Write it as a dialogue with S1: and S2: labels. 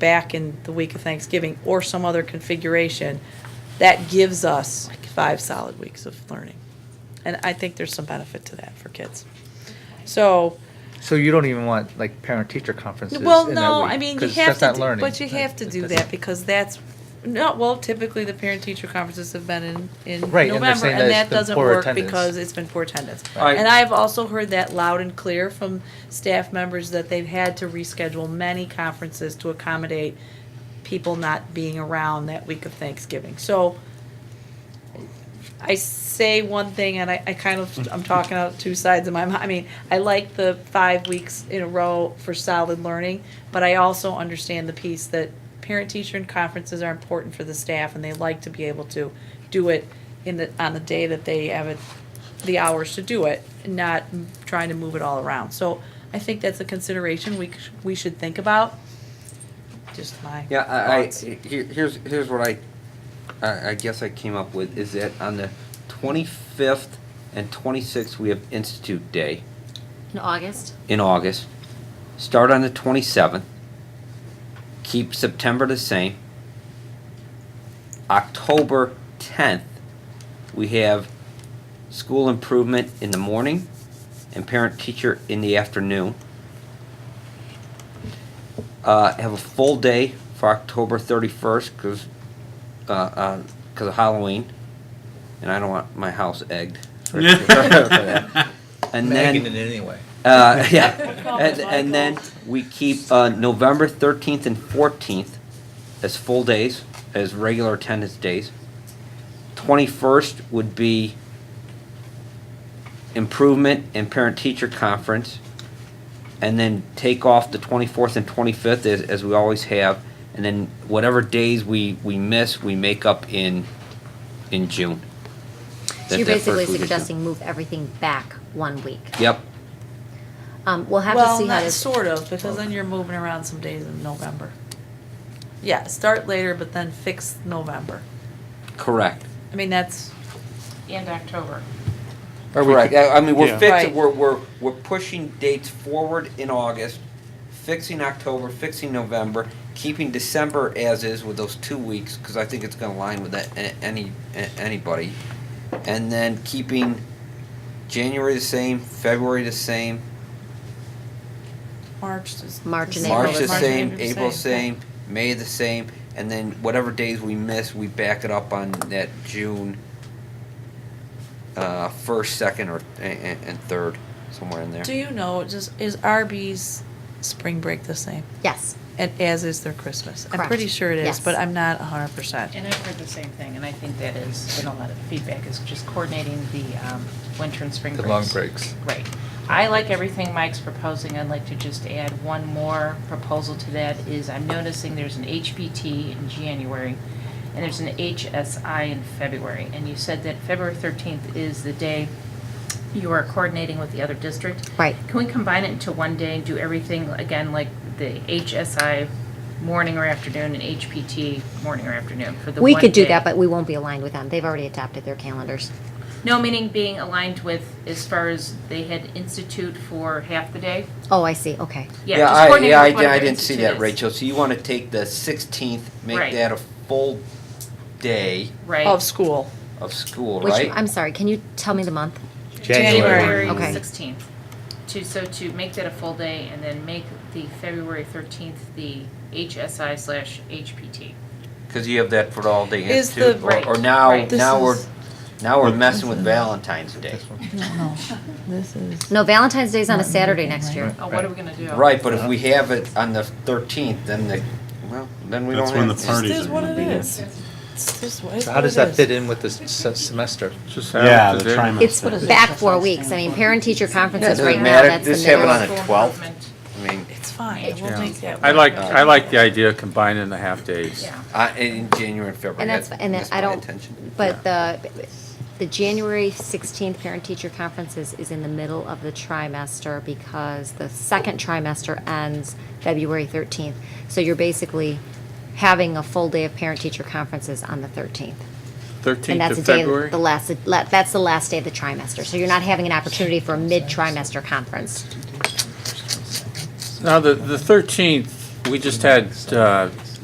S1: back in the week of Thanksgiving or some other configuration, that gives us five solid weeks of learning. And I think there's some benefit to that for kids. So,
S2: So you don't even want like parent-teacher conferences in that
S1: well, no,
S2: week,
S1: I mean, you
S2: 'cause
S1: have
S2: that's
S1: to,
S2: not
S1: do-
S2: learning,
S1: but you
S2: right?
S1: have to do
S2: That's-
S1: that because that's, no, well, typically the parent-teacher conferences have been in, in
S2: Right, and
S1: November.
S2: they're saying that
S1: And
S2: it's
S1: that
S2: been
S1: doesn't
S2: poor
S1: work
S2: attendance.
S1: because it's been poor attendance.
S2: Right.
S1: And I've also heard that loud and clear from staff members that they've had to reschedule many conferences to accommodate people not being around that week of Thanksgiving. So I say one thing and I, I kind of, I'm talking out two sides of my mind. I mean, I like the five weeks in a row for solid learning, but I also understand the piece that parent teacher and conferences are important for the staff and they like to be able to do it in the, on the day that they have it, the hours to do it, not m- trying to move it all around. So I think that's a consideration we, c- we should think about. Just my
S3: Yeah, I, I,
S1: thoughts.
S3: here, here's, here's what I, I, I guess I came up with, is that on the twenty-fifth and twenty-sixth, we have Institute Day
S4: In August?
S3: in August. Start on the twenty-seventh. Keep September the same. October tenth, we have school improvement in the morning and parent-teacher in the afternoon. uh, have a full day for October 31st because uh, uh 'cause of Halloween, and I don't want my house egged. For, for that. And
S2: Nagging
S3: then,
S2: it anyway.
S3: uh, yeah, and, and then we keep uh, November 13th and 14th as full days, as regular attendance days. 21st would be improvement and parent teacher conference and then take off the 24th and 25th as, as we always have and then whatever days we, we miss we make up in in june
S4: So
S3: That-
S4: you're
S3: that
S4: basically
S3: first week of June.
S4: suggesting move everything back one week.
S3: yep
S4: Um, we'll have to
S1: well,
S4: see how
S1: not
S4: this.
S1: sort of, because then you're moving around some days in November. Yeah, start later, but then fix November.
S3: correct
S1: I mean, that's
S5: And October.
S2: Or we
S3: correct
S2: could-
S3: i I mean we're
S6: Yeah.
S3: fixing
S1: Right.
S3: we're, we're we're pushing dates forward in august fixing october fixing november keeping december as is with those two weeks because i think it's going to align with that a- any a- anybody and then keeping january the same february the same
S1: March. is-
S4: March and
S3: March
S4: April
S3: the
S4: is the
S3: same, April same, May the same, and then whatever days we miss, we back it up on that June uh, first, second, or and, and third, somewhere in there.
S1: Do you know, just, is Arby's spring break the same?
S4: Yes,
S1: And as is their Christmas? I'm
S4: Correct.
S1: pretty sure it is,
S4: Yes.
S1: but I'm not hundred percent.
S5: And I've heard the same thing, and I think that is, been a lot of feedback, is just coordinating the um, winter and spring
S2: The
S5: breaks.
S2: long breaks.
S5: Right. I like everything Mike's proposing. I'd like to just add one more proposal to that is I'm noticing there's an HBT in January, and there's an HSI in February. And you said that February 13th is the day you are coordinating with the other district.
S4: right.
S5: Can we combine it into one day and do everything again, like the HSI morning or afternoon and HPT morning or afternoon for the
S4: We
S5: one
S4: could do
S5: day?
S4: that, but we won't be aligned with them. They've already adopted their calendars.
S5: No, meaning being aligned with as far as they had institute for half the day?
S4: Oh, I see, okay.
S5: Yeah, just
S3: I,
S5: coordinate
S3: yeah, I,
S5: with one of
S3: I
S5: their
S3: didn't see that,
S5: institutes.
S3: Rachel. So you want to take the sixteenth, make
S5: Right.
S3: that a full day
S1: Of
S4: Oh,
S5: Right.
S1: school.
S3: of school,
S4: Which,
S3: right?
S4: I'm sorry, can you tell me the month?
S1: January.
S4: Okay.
S5: sixteenth. To, so to make that a full day and then make the February thirteenth the HSI slash HPT.
S3: Because you have that for all day
S1: Is
S3: institute,
S1: the-
S3: or, or
S5: Right.
S3: now
S5: Right.
S1: This
S3: now we're
S1: is-
S3: now we're messing with Valentine's Day,
S1: No, this is.
S4: No, Valentine's Day's on a Saturday next year.
S5: Oh, what are we gonna do?
S3: right? But if we have it on the thirteenth, then the well, then we
S6: That's
S3: don't
S6: when
S3: have
S6: the
S3: it.
S1: This
S6: parties
S1: is
S6: are
S1: what
S6: gonna
S1: it
S6: be there.
S1: is. It's just what- it's
S2: So how
S1: what
S2: does
S1: it
S2: that
S1: is.
S2: fit in with this se- semester?
S6: Just have
S7: Yeah,
S6: it
S7: the
S6: today.
S7: trimester.
S4: It's back four weeks. I mean, parent-teacher
S3: Yeah, it
S4: conferences
S3: doesn't
S4: right now,
S3: matter.
S4: that's the
S3: Just have it
S4: middle.
S3: on
S4: of-
S3: the
S5: School
S3: 12th.
S5: improvement.
S3: I mean,
S1: It's fine, we'll
S5: Yeah.
S1: make that.
S6: I like,
S1: work.
S6: I like the idea of combining the half days.
S5: Yeah.
S3: Uh, in January and February.
S4: And that's, and then
S3: that's
S4: I
S3: my
S4: don't,
S3: intention.
S4: but the, the January 16th parent-teacher conferences is in the middle of the trimester because the second trimester ends February 13th. So you're basically having a full day of parent-teacher conferences on the 13th. And
S6: 13th
S4: that's
S6: of
S4: the day,
S6: February?
S4: the last, la- that's the last day of the trimester. So you're not having an opportunity for a mid-trimester conference.
S6: Now, the, the 13th we just had, uh,